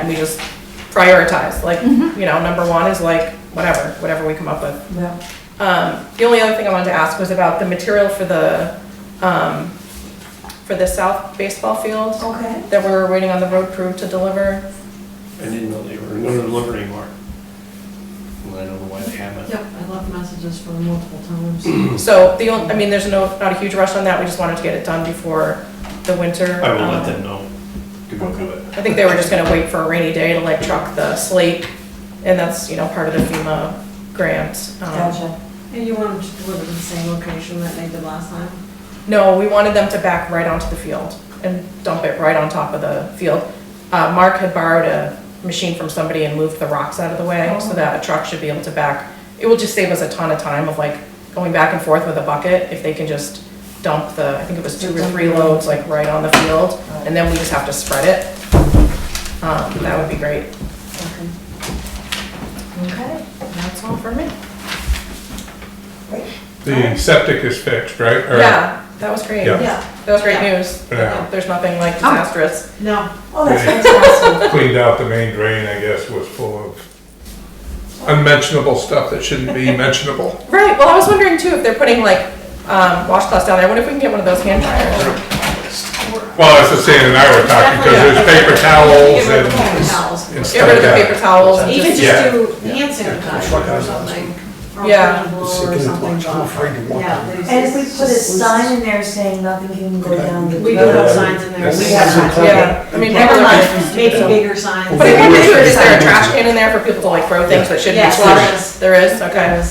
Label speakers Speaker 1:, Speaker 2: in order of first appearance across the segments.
Speaker 1: and we just prioritize, like, you know, number one is like, whatever, whatever we come up with.
Speaker 2: Mm-hmm. Yeah.
Speaker 1: Um, the only other thing I wanted to ask was about the material for the, um, for the south baseball field
Speaker 2: Okay.
Speaker 1: that we were waiting on the road crew to deliver.
Speaker 3: I didn't know they were going to deliver anymore. Well, I don't know why they haven't.
Speaker 4: Yep, I left messages for multiple times.
Speaker 3: Hmm.
Speaker 1: So the, on- I mean, there's no, not a huge rush on that, we just wanted to get it done before the winter.
Speaker 3: I will let
Speaker 1: um,
Speaker 3: them know to go do it.
Speaker 1: I think they were just gonna wait for a rainy day to like truck the slate, and that's, you know, part of the FEMA grant. Um,
Speaker 2: Gotcha.
Speaker 4: And you want them to deliver to the same location that they did last time?
Speaker 1: No, we wanted them to back right onto the field and dump it right on top of the field. Uh, Mark had borrowed a machine from somebody and moved the rocks out of the way, so that a truck should be able to back. It will just save us a ton of time of like going back and forth with a bucket, if they can just dump the, I think it was two or three loads, Oh. like right on the field, and then we just have to spread it. Um, that would be great.
Speaker 4: Okay.
Speaker 2: Okay.
Speaker 1: That's all for me.
Speaker 5: The septic is fixed, right? Or-
Speaker 1: Yeah, Oh. that was great.
Speaker 5: Yeah.
Speaker 4: Yeah,
Speaker 1: That was great
Speaker 4: Yeah.
Speaker 1: news.
Speaker 5: Yeah.
Speaker 1: There's nothing like disastrous.
Speaker 4: no,
Speaker 2: Oh, that's fantastic.
Speaker 5: Cleaned out the main drain, I guess, was full of unmentionable stuff that shouldn't be mentionable.
Speaker 1: Right, well, I was wondering too, if they're putting like, um, washcloths down there, I wonder if we can get one of those hand dryers.
Speaker 5: Well, that's what Sam and I were talking, because there's paper towels
Speaker 4: Get rid of the paper
Speaker 5: and.
Speaker 4: towels.
Speaker 1: Get rid of
Speaker 5: and
Speaker 1: the
Speaker 5: stuff like
Speaker 1: paper towels and
Speaker 4: Even
Speaker 1: just,
Speaker 4: just
Speaker 5: Yeah.
Speaker 4: do hand sanitizer or something. or a
Speaker 1: Yeah.
Speaker 4: blow Or something. Yeah. they
Speaker 2: And if we
Speaker 4: just-
Speaker 2: put a sign in there saying nothing can go down the.
Speaker 4: We do have signs in there.
Speaker 6: Yes.
Speaker 4: We have signs.
Speaker 1: yeah, I mean, people
Speaker 4: Never
Speaker 1: are-
Speaker 4: mind, maybe bigger signs.
Speaker 1: But I wonder too, is there a trash can in there for people to like throw things that shouldn't be
Speaker 4: Yes,
Speaker 1: slaughtered?
Speaker 4: there
Speaker 1: There
Speaker 4: is.
Speaker 1: is, okay,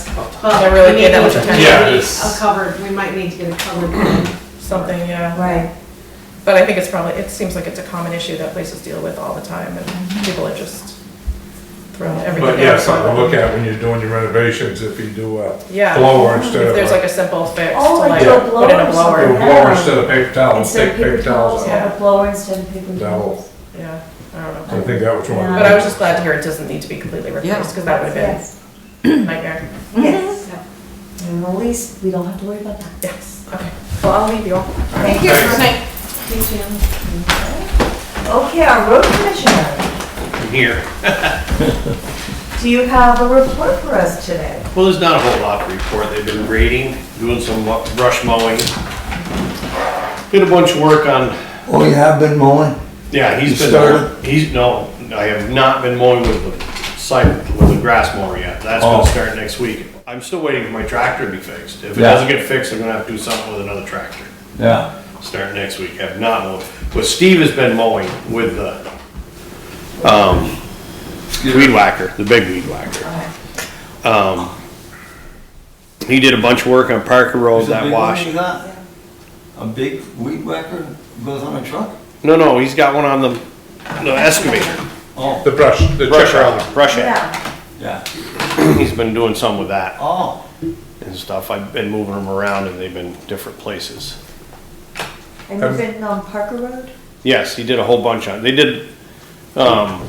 Speaker 1: I
Speaker 4: But
Speaker 1: really
Speaker 4: we
Speaker 1: paid that
Speaker 4: may
Speaker 1: much
Speaker 4: need-
Speaker 1: attention.
Speaker 5: Yeah,
Speaker 4: A
Speaker 5: it's-
Speaker 4: covered, we might need to get a covered.
Speaker 1: something, yeah.
Speaker 2: Right.
Speaker 1: But I think it's probably, it seems like it's a common issue that places deal with all the time, and people are just throwing
Speaker 5: that.
Speaker 1: everything.
Speaker 5: But yeah,
Speaker 1: out.
Speaker 5: something to look at when you're doing your renovations, if you do a
Speaker 1: Yeah. Mm-hmm.
Speaker 5: blower
Speaker 1: If
Speaker 5: instead of,
Speaker 1: there's like
Speaker 5: a-
Speaker 1: a simple fix to
Speaker 2: Oh,
Speaker 1: like
Speaker 2: like a
Speaker 1: put in a
Speaker 2: blower or
Speaker 5: do a
Speaker 1: blower,
Speaker 2: something.
Speaker 5: blower instead of paper towels,
Speaker 2: Instead
Speaker 5: take
Speaker 2: of paper towels,
Speaker 5: out.
Speaker 2: have a blower instead of paper
Speaker 5: That will-
Speaker 2: towels.
Speaker 1: yeah, I don't
Speaker 5: I
Speaker 1: know.
Speaker 5: think that was one.
Speaker 1: But I
Speaker 2: Um,
Speaker 1: was just glad to hear it doesn't need to be completely replaced, because that would have
Speaker 2: Yes.
Speaker 1: been a nightmare.
Speaker 2: Mm-hmm. Yes.
Speaker 4: Yep.
Speaker 2: And at least we don't have to worry about that.
Speaker 1: Yes, okay. Well, I'll leave you all.
Speaker 2: Thank you.
Speaker 5: Thanks.
Speaker 2: Okay, our road commissioner,
Speaker 3: I'm here.
Speaker 2: do you have a report for us today?
Speaker 3: Well, there's not a whole lot to report. They've been grading, doing some mu- brush mowing. Did a bunch of work on,
Speaker 6: Oh, you have been mowing?
Speaker 3: yeah, he's
Speaker 6: You
Speaker 3: been,
Speaker 6: started?
Speaker 3: he's, no, I have not been mowing with the site, with the grass mower yet. That's
Speaker 6: Oh.
Speaker 3: gonna start next week. I'm still waiting for my tractor to be fixed. If it
Speaker 6: Yeah.
Speaker 3: doesn't get fixed, I'm gonna have to do something with another tractor.
Speaker 6: Yeah.
Speaker 3: Start next week. Have not mowed. But Steve has been mowing with the, um, weed whacker, the big weed whacker. Um, he did a bunch of work on Parker Road
Speaker 6: Is it
Speaker 3: that
Speaker 6: big
Speaker 3: wash.
Speaker 6: one you got? A big weed whacker goes on a truck?
Speaker 3: No, no, he's got one on the, the excavator,
Speaker 6: Oh,
Speaker 5: The brush, the
Speaker 3: brush
Speaker 5: chipper.
Speaker 3: out, brush it.
Speaker 2: Yeah.
Speaker 6: yeah.
Speaker 3: He's been doing some with that
Speaker 6: Oh,
Speaker 3: and stuff. I've been moving them around and they've been different places.
Speaker 2: And you've been on Parker Road?
Speaker 3: Yes, he did a whole bunch on, they did, um,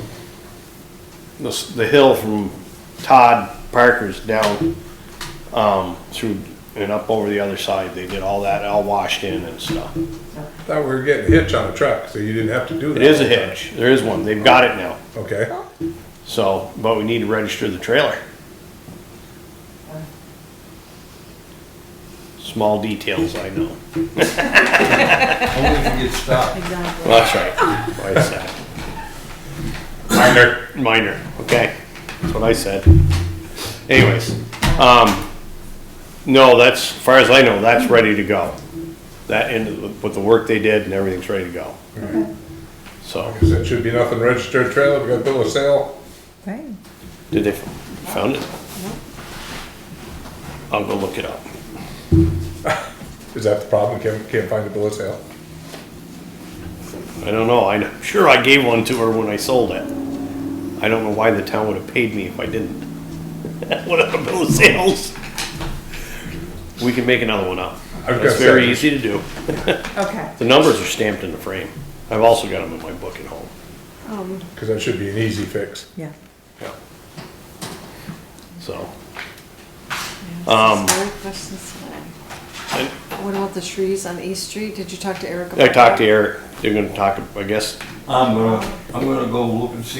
Speaker 3: the, s- the hill from Todd Parker's down, um, through and up over the other side. They did all that, all washed in and stuff.
Speaker 5: Thought we were getting hitch on a truck, so you didn't have to do that.
Speaker 3: It is a hitch. There is one. They've got it now.
Speaker 5: Okay.
Speaker 3: So, but we need to register the trailer. Small details, I know.
Speaker 6: only if you get stopped.
Speaker 4: Exactly.
Speaker 3: Well, that's right. What I said. Minor, minor, okay. That's what I said. Anyways, um, no, that's, as far as I know, that's ready to go. That ended with the work they did and everything's ready to go. So,
Speaker 5: Because it should be nothing registered trailer, we got bill of sale.
Speaker 2: Right.
Speaker 3: did they found it? I'll go look it up.
Speaker 5: Is that the problem? Can't, can't find a bill of sale?
Speaker 3: I don't know, I'm sure I gave one to her when I sold it. I don't know why the town would have paid me if I didn't. What a bill of sales. We can make another one up.
Speaker 5: I was gonna
Speaker 3: It's very
Speaker 5: say-
Speaker 3: easy to do.
Speaker 1: Okay.
Speaker 3: The numbers are stamped in the frame. I've also got them in my book at home.
Speaker 5: Because that should be an easy fix.
Speaker 2: Yeah.
Speaker 3: Yeah. So. Um,
Speaker 7: Sorry, questions today.
Speaker 3: I
Speaker 7: What about the trees on East Street? Did you talk to Eric about
Speaker 3: I
Speaker 7: that?
Speaker 3: talked to Eric, they're gonna talk, I guess,
Speaker 6: I'm gonna, I'm gonna go look and see